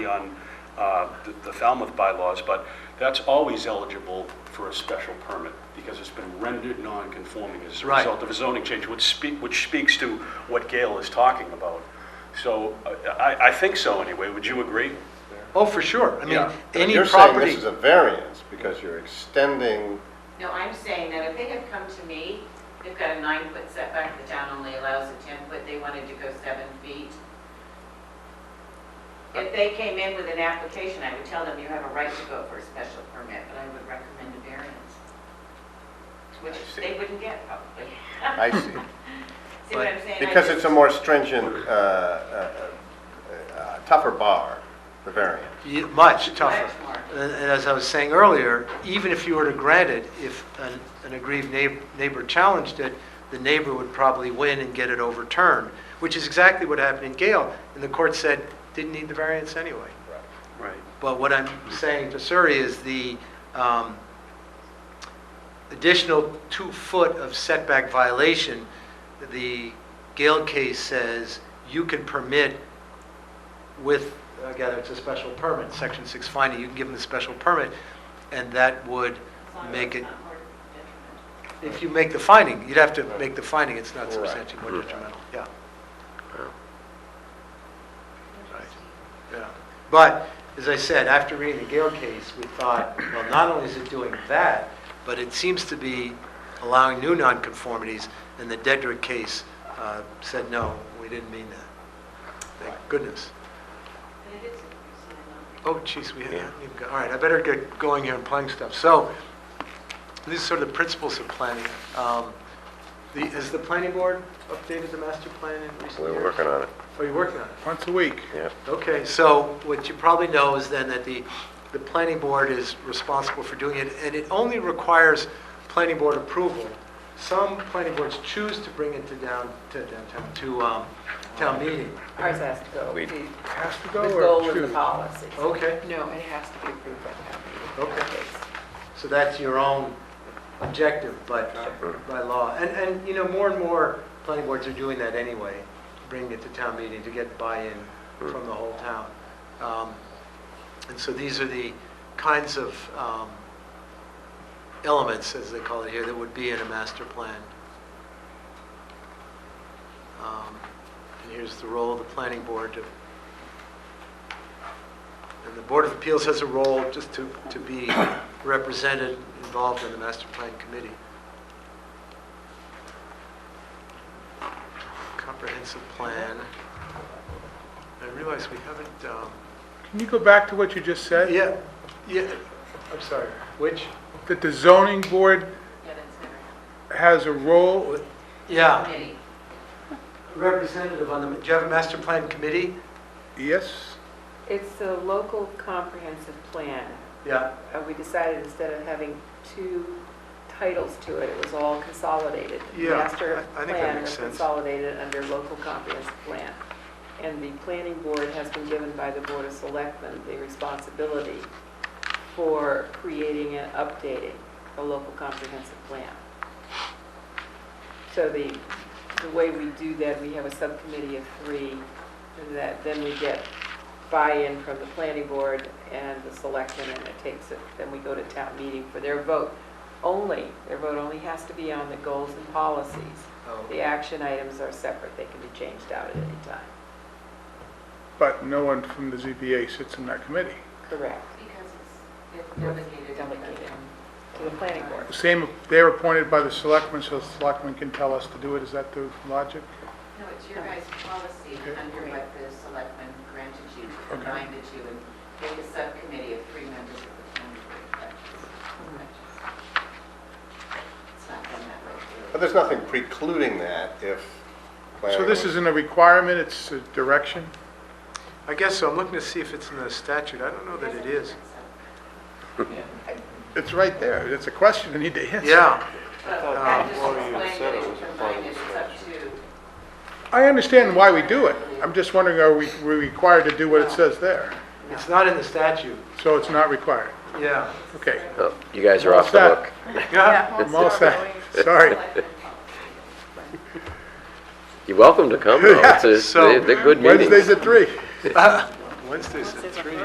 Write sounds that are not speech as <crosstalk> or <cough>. on uh, the the Falmouth bylaws, but that's always eligible for a special permit because it's been rendered non-conforming as a Right. result of a zoning change, which speak, which speaks to what Gail is talking about. So uh, I, I think so anyway. Would you agree? Oh, for sure. I mean, Yeah. any You're saying property, this is a variance because you're extending, No, I'm saying that if they have come to me, they've got a nine-foot setback, the town only allows a ten-foot, they wanted to go seven feet. If they came in with an application, I would tell them you have a right to go for a special permit, but I would recommend a variance, which I see. they wouldn't get probably. <laughs> I see, See what I'm saying? I because it's just- a more stringent, uh, uh, uh, tougher bar, the variance. y- much tougher. Much more. And and as I was saying earlier, even if you were to grant it, if an an aggrieved neigh- neighbor challenged it, the neighbor would probably win and get it overturned, which is exactly what happened in Gale. And the court said, didn't need the variance anyway. Right. But what I'm saying to Suri is the um, additional two foot of setback violation, the Gale case says you can permit with, again, it's a special permit, section six finding, you can give them a special permit, and that would as long as it's make it, not more detrimental. if you make the finding, you'd have to make the finding, it's not substantially more detrimental, yeah. Yeah, But, as I said, after reading the Gale case, we thought, well, not only is it doing that, but it seems to be allowing new nonconformities, and the Dedrick case uh, said, no, we didn't mean that. Thank goodness. But it is a percent, not- Oh, jeez, we haven't even got, all right, I better get going here and playing stuff. So, these are sort of the principles of planning. Um, the- Has the planning board updated the master plan in recent years? on Are it, you working on it? Once a week. yeah. Okay, so what you probably know is then that the, the planning board is responsible for doing it, and it only requires planning board approval. Some planning boards choose to bring it to down, to downtown, to, um, town meeting. Ours has to go. We- The Has to the go goal or of the two? policy. Okay, No, it has to be approved by the Okay. town meeting. so that's your own objective, but by law. And, and, you know, more and more planning boards are doing that anyway, bringing it to town meeting to get buy-in from the whole town. Um, And so these are the kinds of um, elements, as they call it here, that would be in a master plan. Um, And here's the role of the planning board to, and the Board of Appeals has a role just to, to be <coughs> represented, involved in the master plan committee. Comprehensive plan. I realize we haven't, um, Can you go back to what you just said? Uh, yeah, yeah, I'm sorry, which? That the zoning board Yeah, that's never happened. has a role, Yeah, Committee. representative on the, do you have a master plan committee? yes? It's the local comprehensive plan. Yeah, Uh, We decided instead of having two titles to it, it was all consolidated. The Yeah, Master I- I think that plan makes was sense. consolidated under local comprehensive plan. And the planning board has been given by the Board of Selectmen the responsibility for creating and updating the local comprehensive plan. So the, the way we do that, we have a subcommittee of three, and that, then we get buy-in from the planning board and the selectmen, and it takes it, then we go to town meeting for their vote. Only, their vote only has to be on the goals and policies. Oh. The action items are separate, they can be changed out at any time. But no one from the ZBA sits in that committee. Correct, Because it's- it's delegated. Delegated. Um, to the planning board. Same, they're appointed by the selectmen, so the selectmen can tell us to do it. Is that the logic? No, it's your guys' policy Okay. under what the selectmen granted you, reminded you, and make a subcommittee of three members of the planning board. It's not done that way. But there's nothing precluding that if. So this isn't a requirement, it's a direction? I guess so, I'm looking to see if it's in the statute, I don't know that it is. It's right there. It's a question I need to answer. Yeah, But Uh, that just explained that it's reminded, it's up to. I understand why we do it. I'm just wondering, are we we required to do what it says there? it's not in the statute, So it's not required? yeah. Okay. Oh, You guys are What's off the that? hook. Yeah, I'm all set. Sorry. selectmen policy. You're welcome to come, though. It's a- so- They're they're good meetings. Wednesdays at three. Wednesdays at Wednesdays at three.